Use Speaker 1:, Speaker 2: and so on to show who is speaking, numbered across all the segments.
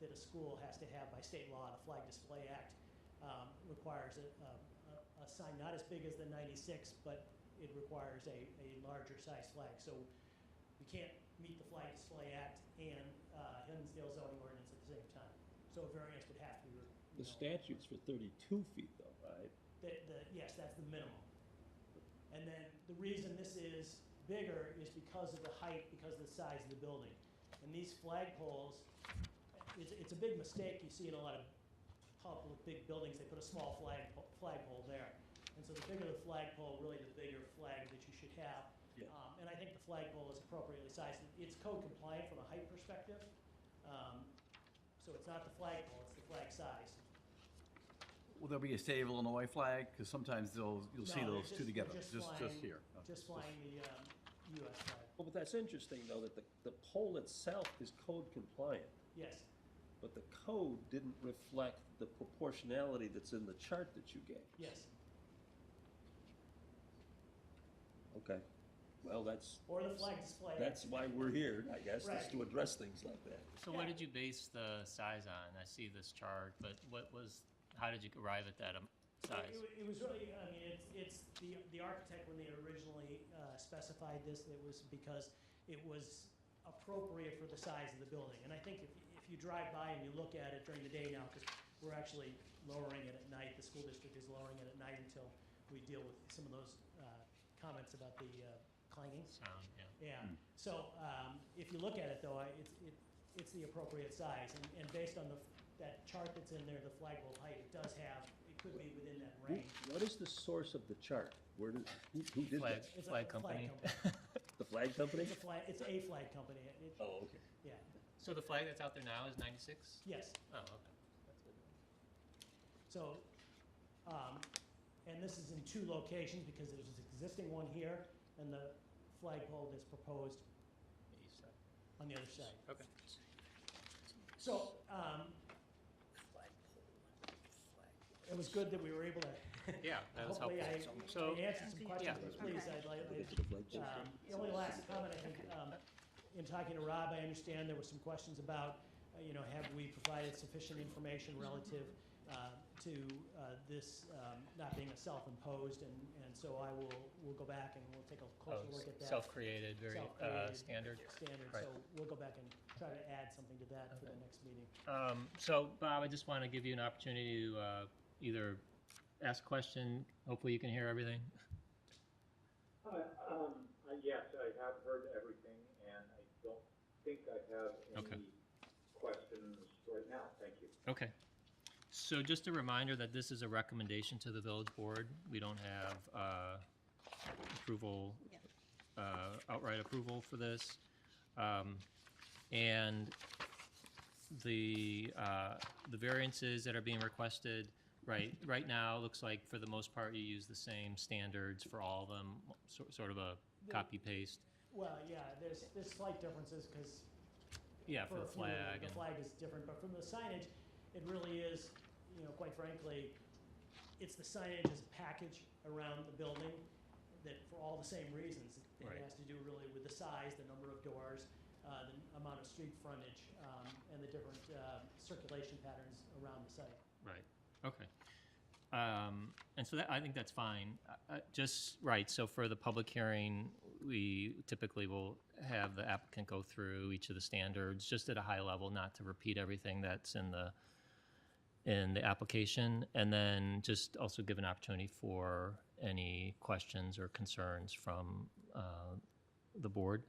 Speaker 1: that a school has to have by state law. The Flag Display Act um, requires a, a, a- a sign not as big as the 96, but it requires a, a larger size flag. So we can't meet the Flag Display Act and uh, Hinsdale zoning ordinance at the same time. So a variance would have to be. you know,
Speaker 2: The statute's for 32 feet though, right?
Speaker 1: the, the, yes, that's the minimum. And then the reason this is bigger is because of the height, because of the size of the building. And these flagpoles, it's, it's a big mistake you see in a lot of public, big buildings, they put a small flag, flagpole there. And so the bigger the flagpole, really the bigger flag that you should have.
Speaker 2: Yeah.
Speaker 1: Um, and I think the flagpole is appropriately sized. It's code compliant from a height perspective. Um, so it's not the flagpole, it's the flag size.
Speaker 3: Will there be a state of Illinois flag? Because sometimes they'll, you'll see
Speaker 1: No, they're
Speaker 3: those two
Speaker 1: just-
Speaker 3: together,
Speaker 1: they're
Speaker 3: just, just
Speaker 1: flying-
Speaker 3: here. No,
Speaker 1: Just flying the um, US flag,
Speaker 2: Well, but that's interesting though, that the, the pole itself is code compliant,
Speaker 1: yes.
Speaker 2: but the code didn't reflect the proportionality that's in the chart that you gave.
Speaker 1: Yes,
Speaker 2: Okay, well, that's,
Speaker 1: or the flag display.
Speaker 2: that's why we're here, I guess, is
Speaker 1: Right.
Speaker 2: to address things like that.
Speaker 4: So what
Speaker 1: Yeah.
Speaker 4: did you base the size on? I see this chart, but what was, how did you arrive at that um,
Speaker 1: It
Speaker 4: size?
Speaker 1: wa- it was really, I mean, it's, it's the, the architect, when they originally uh, specified this, it was because it was appropriate for the size of the building. And I think if, if you drive by and you look at it during the day now, because we're actually lowering it at night, the school district is lowering it at night until we deal with some of those uh, comments about the uh, clanging.
Speaker 4: Sound, yeah.
Speaker 1: Yeah, so um, if you look at it, though, I- it's, it- it's the appropriate size, and- and based on the, that chart that's in there, the flagpole height, it does have, it could be within that
Speaker 2: Who-
Speaker 1: range.
Speaker 2: What is the source of the chart? Where did, who, who did
Speaker 4: Flag,
Speaker 2: that?
Speaker 1: It's a
Speaker 4: flag company.
Speaker 2: The flag company?
Speaker 1: It's a flag, it's a flag company, It- it-
Speaker 2: Oh, okay.
Speaker 1: yeah,
Speaker 4: So the flag that's out there now is 96?
Speaker 1: yes.
Speaker 4: Oh, okay.
Speaker 1: So, um, and this is in two locations, because there's this existing one here, and the flagpole that's proposed
Speaker 4: East side.
Speaker 1: on the other side.
Speaker 4: Okay.
Speaker 1: So, um, it was good that we were able to
Speaker 4: Yeah, that was
Speaker 1: Hopefully, I
Speaker 4: helpful. So-
Speaker 1: I answered some questions, but please, I'd like,
Speaker 2: Okay.
Speaker 1: I'd-
Speaker 2: Okay.
Speaker 1: um, the only last comment, I think, um, in talking to Rob, I understand there were some questions about, uh, you know, have we provided sufficient information relative uh, to uh, this um, not being a self-imposed, and, and so I will, we'll go back and we'll take a closer
Speaker 4: Oh,
Speaker 1: look at that.
Speaker 4: Self-created, very uh,
Speaker 1: Self-created
Speaker 4: standard.
Speaker 1: Standard,
Speaker 4: Right.
Speaker 1: so we'll go back and try to add something to that for the next meeting.
Speaker 4: Um, so, Bob, I just want to give you an opportunity to uh, either ask a question. Hopefully, you can hear everything.
Speaker 5: Uh, um, uh, Yes, I have heard everything, and I don't think I have
Speaker 4: Okay.
Speaker 5: any questions right now. Thank you.
Speaker 4: Okay. So just a reminder that this is a recommendation to the village board. We don't have uh, approval,
Speaker 6: Yeah.
Speaker 4: uh, outright approval for this. Um, And the, uh, the variances that are being requested, right, right now, looks like for the most part, you use the same standards for all of them, so- sort of a copy paste.
Speaker 1: Well, yeah, there's, there's slight differences, because
Speaker 4: Yeah, for
Speaker 1: a
Speaker 4: the
Speaker 1: few of them,
Speaker 4: flag.
Speaker 1: The
Speaker 4: and-
Speaker 1: flag is different, but from the signage, it really is, you know, quite frankly, it's the signage as a package around the building that, for all the same reasons. It
Speaker 4: Right.
Speaker 1: has to do really with the size, the number of doors, uh, the amount of street frontage, um, and the different, uh, circulation patterns around the site.
Speaker 4: Right. Okay. Um, and so that, I think that's fine. Uh, Uh, just right. So for the public hearing, we typically will have the applicant go through each of the standards, just at a high level, not to repeat everything that's in the in the application, and then just also give an opportunity for any questions or concerns from uh, the board.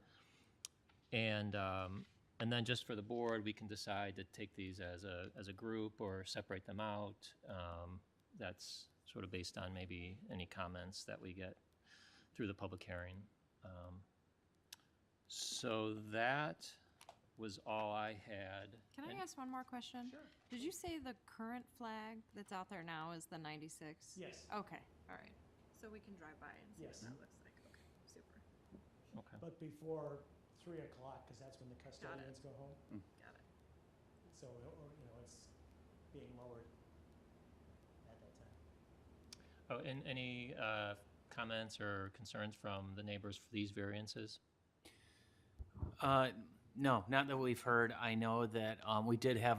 Speaker 4: And, um, and then just for the board, we can decide to take these as a, as a group or separate them out. Um, that's sort of based on maybe any comments that we get through the public hearing. Um, So that was all I had.
Speaker 6: Can I
Speaker 4: And-
Speaker 6: ask one more question? Sure. Did you say the current flag that's out there now is the 96?
Speaker 1: Yes.
Speaker 6: Okay, all right. So we can drive by and see what
Speaker 1: Yes.
Speaker 6: that looks like. Okay, super.
Speaker 4: Okay.
Speaker 1: But before three o'clock, because that's when the custodians go home,
Speaker 6: Got it.
Speaker 1: so, or, you know, it's being lowered at that time.
Speaker 4: Oh, and any uh, comments or concerns from the neighbors for these variances?
Speaker 7: Uh, no, not that we've heard. I know that um, we did have